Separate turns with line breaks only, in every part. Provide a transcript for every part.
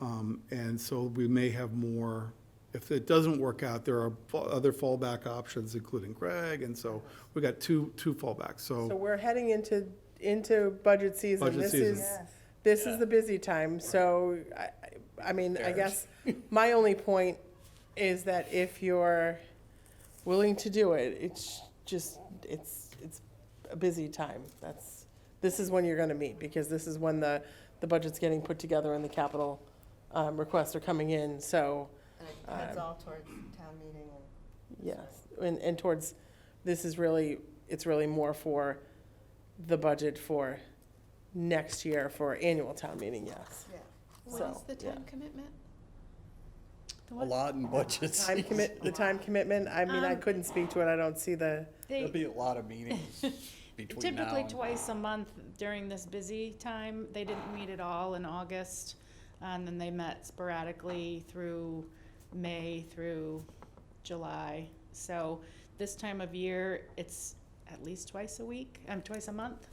Um, And so we may have more, if it doesn't work out, there are fa- other fallback options, including Greg, and so we got two, two fallbacks,
So
so.
we're heading into, into budget season.
Budget
This
season.
is, this is the busy time, so I, I- I mean, I guess my only point is that if you're willing to do it, it's just, it's, it's a busy time. That's, this is when you're gonna meet, because this is when the, the budget's getting put together and the capital, um, requests are coming in, so,
And
Um,
it heads all towards town meeting and.
Yes, and, and towards, this is really, it's really more for the budget for next year for annual town meeting, yes.
Yeah.
What
So,
is the
yeah.
time commitment? The
A
what?
lot in budgets.
Time commit, the time commitment, I mean, I
Um,
couldn't speak to it, I don't see the,
They-
There'll be a lot of meetings between now
Typically
and-
twice a month during this busy time. They didn't meet at all in August. And then they met sporadically through May through July. So this time of year, it's at least twice a week, um, twice a month.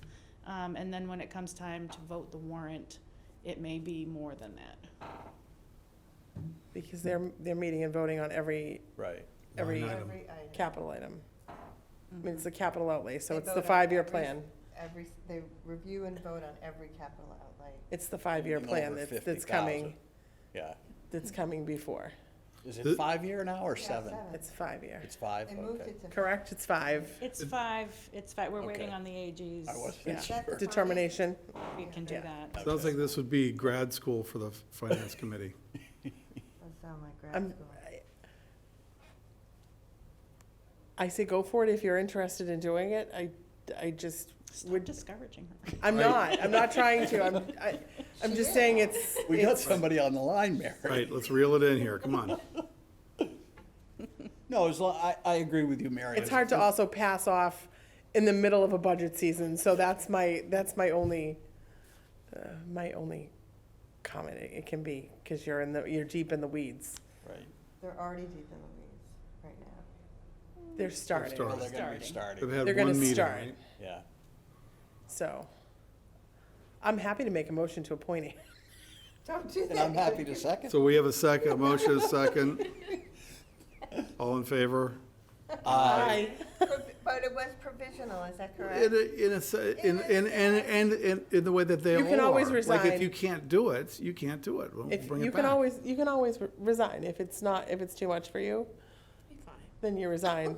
Um, and then when it comes time to vote the warrant, it may be more than that.
because they're, they're meeting and voting on every,
Right.
every
Line item.
Every item.
capital item. I mean, it's the capital outlay, so
They
it's the
vote on
five-year
every-
plan,
Every, they review and vote on every capital outlay.
it's the five-year
Anything
plan
over
that's, that's coming,
50,000. Yeah.
that's coming before,
Is
The-
it five year now or
Yeah,
seven?
it's five-year,
It's five,
They moved
okay.
it to.
correct, it's five,
It's five, it's five, we're waiting
Okay.
on the AGs.
I
Yeah.
wasn't
That's
sure.
fine.
determination,
We can do
Yeah.
that.
Sounds
Okay.
like this would be grad school for the finance committee.
That sound like grad
I'm-
school.
I say go for it if you're interested in doing it. I, I just
Stop
would,
discouraging her.
I'm not, I'm not trying to, I'm, I, I'm just saying it's,
We got
it's-
somebody on the line, Mary.
Right, let's reel it in here, come on.
No, as lo- I, I agree with you, Mary.
it's hard to also pass off in the middle of a budget season, so that's my, that's my only, uh, my only comment it it can be, because you're in the, you're deep in the weeds.
Right.
They're already deep in the weeds right now.
They're
Well,
starting,
they're gonna be
They've
starting,
had
They're gonna
one meeting,
start.
right?
yeah.
so. I'm happy to make a motion to appoint it.
Don't do
And I'm
that.
happy to second.
So we have a second, a motion is second. All in favor?
Aye.
But it was provisional, is that
In,
correct?
a- in a, se- in, in, and, and in the way that they all
You
are.
can always
Like,
resign.
if you can't do it, you can't do it. We'll
If,
bring
you
it
can
back.
always, you can always re- resign if it's not, if it's too much for you. Then you resign.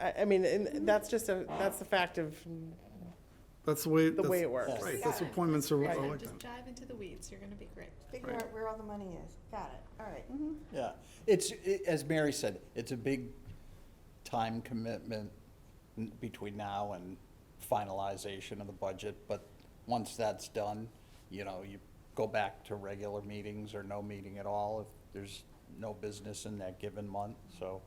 I, I mean, and that's just a, that's the fact of
That's the way.
the
that's-
way it works.
Right, that's what appointments are, are like
Just
that.
dive into the weeds, you're gonna be great.
Figure
Right.
out where all the money is. Got it, all right.
Yeah, it's, i as Mary said, it's a big time commitment n- between now and finalization of the budget, but once that's done, you know, you go back to regular meetings or no meeting at all if there's no business in that given month, so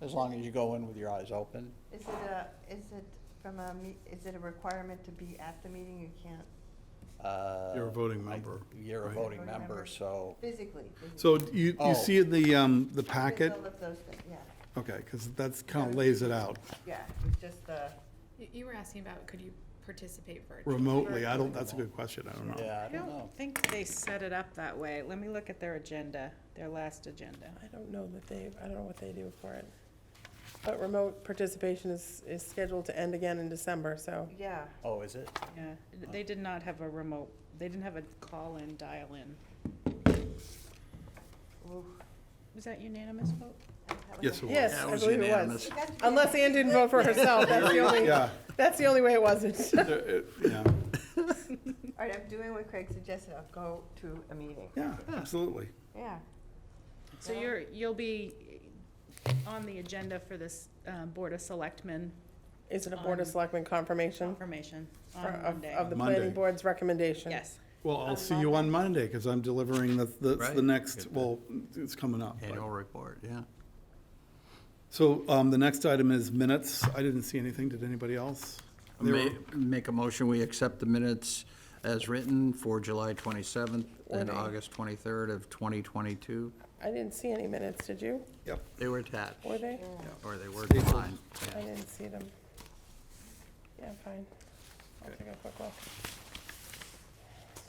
as long as you go in with your eyes open,
Is it a, is it from a, me- is it a requirement to be at the meeting? You can't
uh.
You're a voting
I-
member,
You're a
right?
voting
Voting member.
member, so,
physically. physically.
So you,
Oh.
you see in the, um, the packet,
All of those things, yeah,
okay, because that's kind of lays it out
yeah, it's just uh, the.
You, you were asking about could you participate virtually?
remotely. I don't, that's a good question, I don't know.
yeah,
I
I don't know.
don't think they set it up that way. Let me look at their agenda, their last agenda.
I don't know that they, I don't know what they do for it. But remote participation is, is scheduled to end again in December, so.
Yeah,
Oh, is it?
Yeah, they did not have a remote, they didn't have a call-in, dial-in.
oof,
Was that unanimous vote?
that was
Yes,
a-
it
Yes,
was.
I
was
believe it was.
unanimous.
It got to be a-
Unless Ann didn't vote for herself, that's the only,
Yeah.
that's the only way it wasn't.
It- it- Yeah,
All right, I'm doing what Craig suggested, I'll go to a meeting.
yeah, absolutely.
Yeah.
So
Yeah.
you're, you'll be on the agenda for this, um, Board of Selectmen
Is it a Board of Selectmen confirmation
confirmation
for-
on
of,
Monday.
of the
Monday.
planning board's recommendation?
Yes.
Well, I'll see you on Monday because I'm delivering the, the, it's the
Right.
next, well, it's coming up. but-
report, yeah.
So, um, the next item is minutes. I didn't see anything. Did anybody else? They were-
Ma- Make a motion, we accept the minutes as written for July 27th and
Or May.
August 23rd of 2022.
I didn't see any minutes, did you?
Yep.
They were attached,
Were they?
or they were declined.
I didn't see them. Yeah, fine. I'll take a quick look.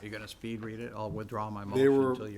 You're going to speed read it? I'll withdraw my
They
motion
were-
until you